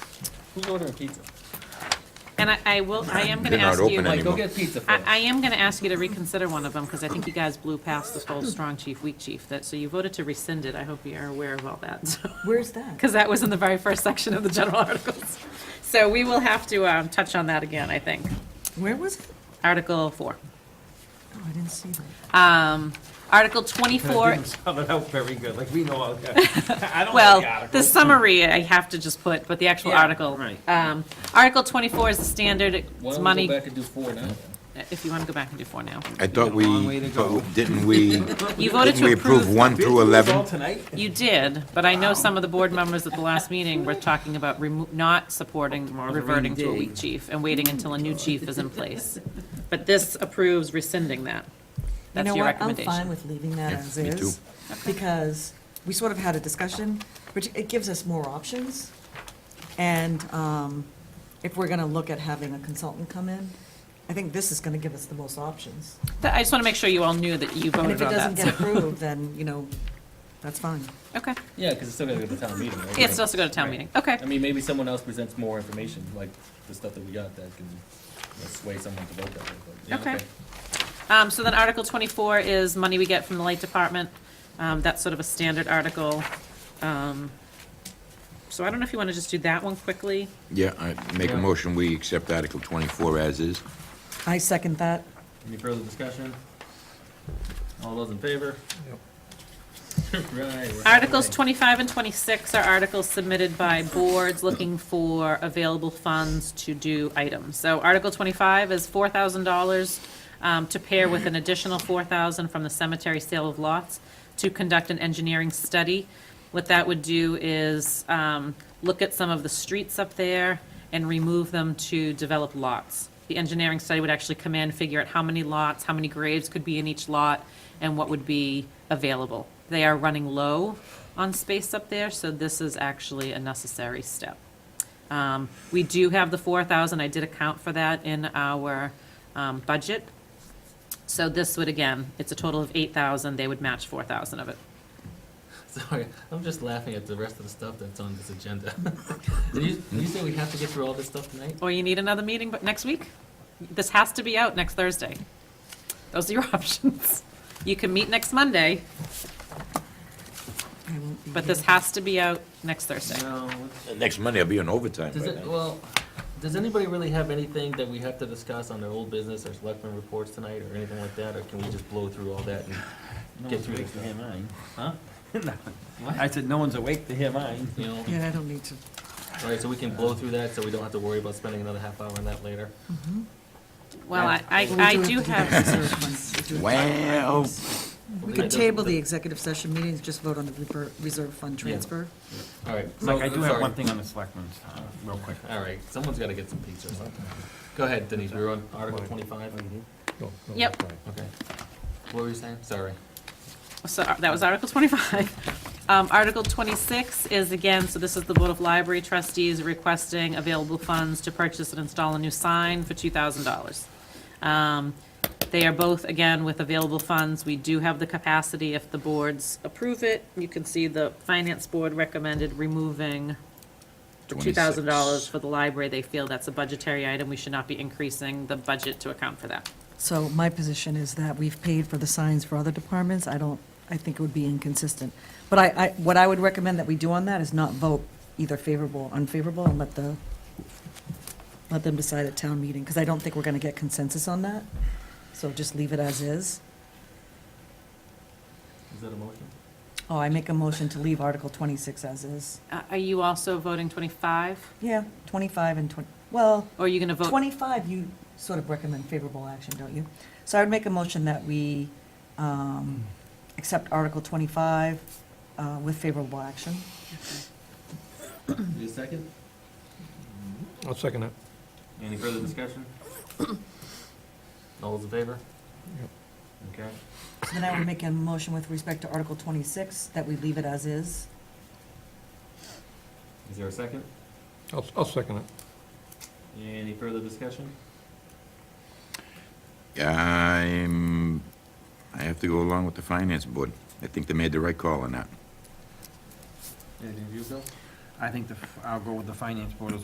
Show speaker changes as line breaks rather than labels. Who's ordering pizza?
And I, I will, I am gonna
They're not
ask you,
open
I,
Mike, go
anymore.
get pizza for
I
us.
am gonna ask you to reconsider one of them, because I think you guys blew past this whole strong chief, weak chief, that, so you voted to rescind it, I hope you are aware of all that, so.
Where's that?
because that was in the very first section of the general articles. So we will have to um, touch on that again, I think.
Where was it?
Article four.
Oh, I didn't see that.
Um, Article
Give
twenty-four,
them something out very good, like we know all that. I don't know the
well, the
article.
summary I have to just put, but the actual
Yeah,
article.
right.
Um, Article twenty-four is the standard,
Why
it's
don't we
money,
go back and do four now?
if you want to go back and do four now.
I thought
We got a long way
we,
to
but
go.
didn't we,
You voted
didn't
to
we approve
approve,
1 through 11?
tonight?
you did, but I know some of the board members at the last meeting were talking about remo- not supporting
a rainy
reverting to a
day.
weak chief and waiting until a new chief is in place. But this approves rescinding that.
You
That's
know
your
what? I'm
recommendation.
fine with leaving that
Yeah,
as
me too.
is, because we sort of had a discussion, which it gives us more options. And um, if we're gonna look at having a consultant come in, I think this is gonna give us the most options.
Th- I just want to make sure you all knew that you
And
voted
if it
on
doesn't
that.
get
so-
approved, then, you know, that's fine.
Okay,
Yeah, because it's still gonna go to town meeting, right?
yeah, it's supposed to go to town
Right.
meeting, okay.
I mean, maybe someone else presents more information, like the stuff that we got that can you know, sway someone to vote that way. but, yeah,
Okay. Um, so then Article twenty-four is money we get from the light department, um, that's sort of a standard article. Um, So I don't know if you want to just do that one quickly,
yeah, I make a
Yeah.
motion, we accept Article 24 as is.
I second that.
Any further discussion? All those in favor? Right, we're
Articles
halfway.
25 and 26 are articles submitted by boards looking for available funds to do items. So Article 25 is $4,000 um, to pair with an additional 4,000 from the cemetery sale of lots to conduct an engineering study. What that would do is um, look at some of the streets up there and remove them to develop lots. The engineering study would actually come in, figure out how many lots, how many graves could be in each lot, and what would be available. They are running low on space up there, so this is actually a necessary step. Um, We do have the 4,000, I did account for that in our um, budget. So this would, again, it's a total of 8,000, they would match 4,000 of it.
Sorry, I'm just laughing at the rest of the stuff that's on this agenda. Did you, did you say we have to get through all this stuff tonight?
Or you need another meeting but next week? This has to be out next Thursday. Those are your options. You can meet next Monday,
I won't be
but this
here.
has to be out next Thursday.
No.
Next Monday, I'll be on overtime
Does it, well, does anybody really have anything that we have to discuss on their old business or selectmen reports tonight or anything like that? Or can we just blow through all that and
No
get
one's
through
awake
this
to
stuff?
hear mine, huh? No. I said, no one's awake to hear mine.
You know,
Yeah, I don't need to.
all right, so we can blow through that, so we don't have to worry about spending another half hour on that later.
Well, I, I
Well, we
I
have
do
to
have,
reserve funds. We do have-
Wow.
We could table the executive session meetings, just vote on the rever- reserve fund transfer.
All right. so-
Mike, I do have
sorry.
one thing on the selectmen's, uh, real quick.
All right, someone's gotta get some pizza or something. Go ahead, Denise, we were on Article twenty-five.
yep,
Okay. What were you saying? Sorry.
So uh, that was Article 25. Um, Article 26 is again, so this is the Board of Library Trustees requesting available funds to purchase and install a new sign for $2,000. Um, They are both, again, with available funds. We do have the capacity, if the boards approve it, you can see the Finance Board recommended removing the $2,000 for the library. They feel that's a budgetary item. We should not be increasing the budget to account for that.
So my position is that we've paid for the signs for other departments. I don't, I think it would be inconsistent. But I, I, what I would recommend that we do on that is not vote either favorable or unfavorable and let the, let them decide at town meeting, because I don't think we're going to get consensus on that. So just leave it as is.
Is that a motion?
Oh, I make a motion to leave Article 26 as is.
Uh, Are you also voting 25?
Yeah, 25 and 20, well,
Or are you going to vote
25, you sort of recommend favorable action, don't you? So I would make a motion that we um, accept Article 25 uh, with favorable action.
Need a second?
I'll second that.
Any further discussion? All those in favor? Okay.
Then I would make a motion with respect to Article 26, that we leave it as is.
Is there a second?
I'll, I'll second it.
Any further discussion?
I'm, I have to go along with the Finance Board. I think they made the right call on that.
Anything you, Bill?
I think the, f- I'll go with the finance board as